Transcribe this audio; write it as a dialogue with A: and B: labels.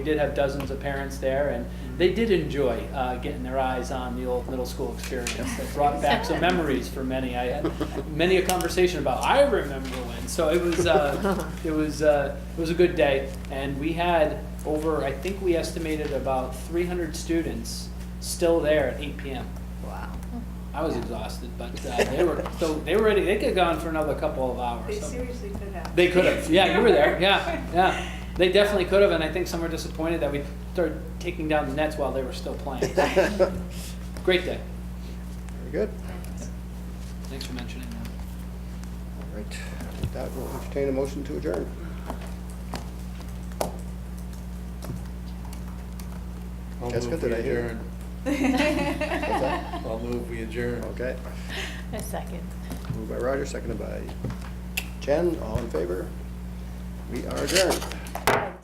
A: We did have dozens of parents there, and they did enjoy uh, getting their eyes on the old middle school experience. That brought back some memories for many. I had many a conversation about I remember when. So it was uh, it was uh, it was a good day, and we had over I think we estimated about 300 students still there at 8 p.m.
B: Wow.
A: I was exhausted, but uh, they were so they were ready. They could have gone for another couple of hours.
C: They
A: So-
C: seriously could have.
A: They could have, yeah, you were there, yeah, yeah. They definitely could have, and I think some were disappointed that we started taking down the nets while they were still playing.
D: Very
A: Great day.
D: good.
A: Thanks for mentioning that.
D: All right. With that, we'll entertain a motion to adjourn.
E: I'll
D: Jessica,
E: move we
D: did I hear?
E: adjourn. I'll move we adjourn.
D: Okay.
B: A second.
D: Moved by Roger, seconded by Jen. All in favor? We are adjourned.